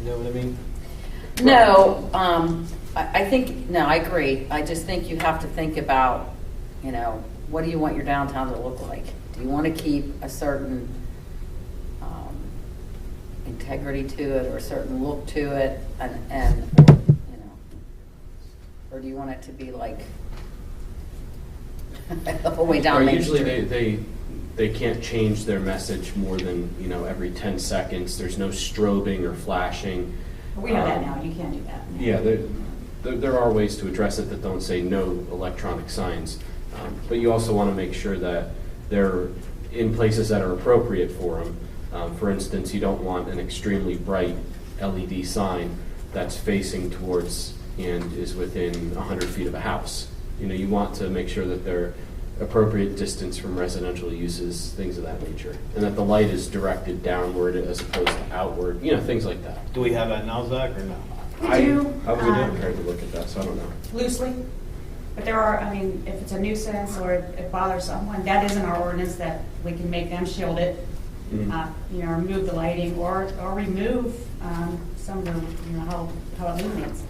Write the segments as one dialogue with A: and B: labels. A: You know what I mean?
B: No, um, I, I think, no, I agree. I just think you have to think about, you know, what do you want your downtown to look like? Do you want to keep a certain, um, integrity to it or a certain look to it and, and, you know? Or do you want it to be like the whole way down
C: Or
B: Main
C: Usually they,
B: Street?
C: they, they can't change their message more than, you know, every 10 seconds. There's no strobing or flashing.
D: We know that
C: Um,
D: now, you can't do that.
C: Yeah, there, there- there are ways to address it that don't say no electronic signs. Um, But you also want to make sure that they're in places that are appropriate for them. For instance, you don't want an extremely bright LED sign that's facing towards and is within 100 feet of a house. You know, you want to make sure that they're appropriate distance from residential uses, things of that nature. And that the light is directed downward as opposed to outward, you know, things like that.
A: Do we have that now, Zach, or no?
D: We
C: I-
D: do,
C: I was not
D: um,
C: prepared to look at that, so I don't know.
D: Loosely, but there are, I mean, if it's a nuisance or if it bothers someone, that is in our ordinance that we can make them shield it,
E: Mm-hmm.
C: Mhm.
D: uh, you know, remove the lighting or, or remove um, some of the, you know, how, how it illuminates.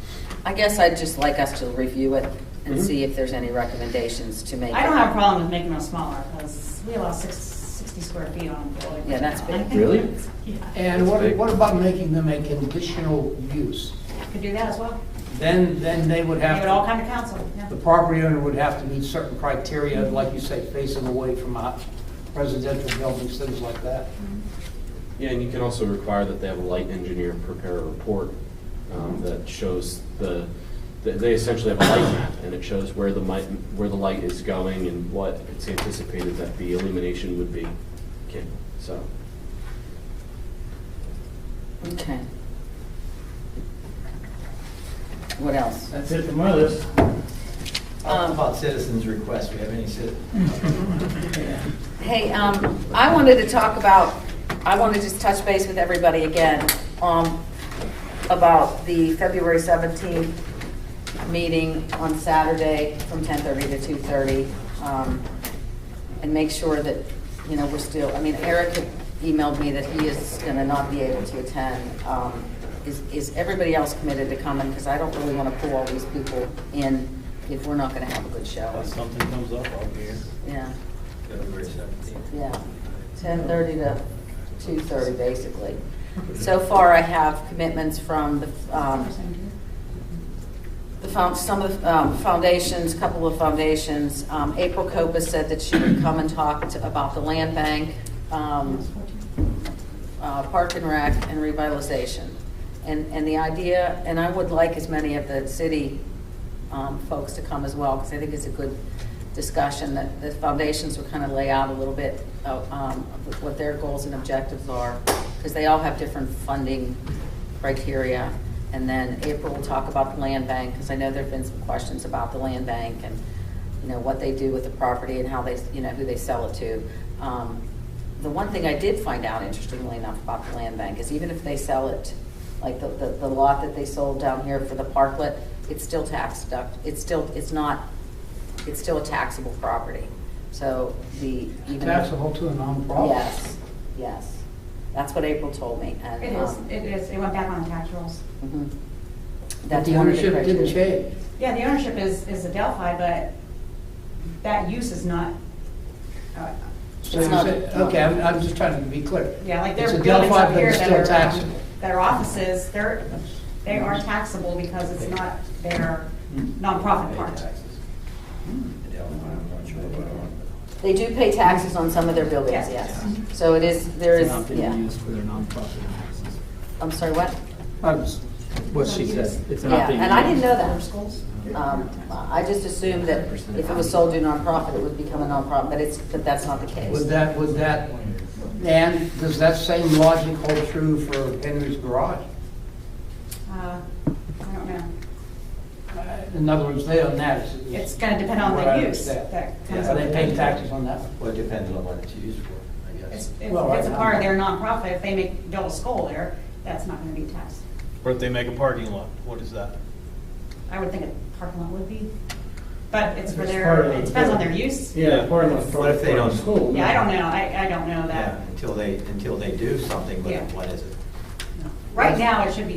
B: I guess I'd just like us to review it and
C: Mhm.
B: see if there's any recommendations to make.
D: I don't have a problem with making them smaller because we allow six- 60 square feet on the building.
B: Yeah, that's big.
C: Really?
D: Yeah,
E: And what, what about making them a conditional use?
D: could do that as well.
E: Then, then they would
D: Give
E: have
D: it all
E: to,
D: kind of counsel, yeah.
E: the property owner would have to meet certain criteria, like you say, facing away from uh, residential buildings, things like that.
D: Mm-hmm.
C: Yeah, and you can also require that they have a light engineer prepare a report um, that shows the, that they essentially have a light map, and it shows where the light, where the light is going and what it's anticipated that the illumination would be. Okay, so,
B: Okay. What else?
F: That's it from others.
B: Um,
G: How about citizens' requests? Do we have any citizens?
B: Hey, um, I wanted to talk about, I want to just touch base with everybody again, um, about the February seventeenth meeting on Saturday from ten thirty to two thirty. Um, and make sure that, you know, we're still, I mean, Eric had emailed me that he is gonna not be able to attend. Um, is, is everybody else committed to coming? Because I don't really want to pull all these people in if we're not gonna have a good show.
A: If something comes up, I'll be here.
B: Yeah.
G: February 17th.
B: Yeah, ten thirty to two thirty, basically. So far, I have commitments from the, um, the found, some of the um, foundations, couple of foundations. Um, April Copa said that she would come and talk to- about the land bank, um, uh, park and rec, and revitalization. And, and the idea, and I would like as many of the city um, folks to come as well, because I think it's a good discussion, that the foundations will kind of lay out a little bit of um, of what their goals and objectives are, because they all have different funding criteria. And then April will talk about the land bank, because I know there've been some questions about the land bank and, you know, what they do with the property and how they, you know, who they sell it to. Um, The one thing I did find out, interestingly enough, about the land bank is even if they sell it, like the, the the lot that they sold down here for the parklet, it's still tax deduct, it's still, it's not, it's still a taxable property. So the. even-
E: Taxable to a nonprofit.
B: Yes, yes. That's what April told me. and,
D: It is,
B: um,
D: it is, it went back on tax rolls.
B: mhm.
E: But
B: That's
E: the
B: one of
E: ownership didn't
B: criteria.
E: change.
D: Yeah, the ownership is, is Adelphi, but that use is not, uh,
E: So
B: It's
E: you
B: not-
E: said- Okay, I'm, I'm just trying to be clear.
D: yeah, like
E: It's
D: there are
E: a
D: buildings
E: Delphi,
D: up
E: but
D: here
E: it's
D: that
E: still
D: are, um,
E: taxable.
D: that are offices, they're, they are
E: Mm-hmm.
D: taxable because it's not their nonprofit part.
G: Taxes. Adelphi, I'm not sure about it.
B: They do pay taxes on some of their buildings,
D: Yes.
B: yes. So it is, there is,
F: Not being
B: yeah.
F: used for their nonprofit purposes.
B: I'm sorry, what?
F: That was What she said. It's
B: Yeah,
F: not being
B: and I didn't
F: used.
B: know that. Um, I just assumed that if it was sold to a nonprofit, it would become a nonprofit, but it's, but that's not the
E: Would
B: case.
E: that, would that, and does that same logic hold true for Henry's Garage?
D: Uh, I don't know.
E: In other words, they own that. is-
D: It's gonna depend on
E: what I
D: the use
E: understand.
D: that comes
E: Yeah,
D: up.
E: they pay taxes on that.
G: Well, it depends on what it's used for, I
D: It's,
G: guess.
D: it's
E: Well, I-
D: it's a part of their nonprofit, if they make, build a school there, that's not gonna be taxed.
A: Or if they make a parking lot, what is that?
D: I would think a parking lot would be, but it's for
F: It's part
D: their,
F: of the-
D: it depends on their use. Yeah,
F: Yeah, part of the.
G: What if they don't-
F: School.
D: I don't know, I, I don't know
G: Yeah,
D: that.
G: until they, until they do something with it,
D: Yeah.
G: what is it?
D: Right now, it should be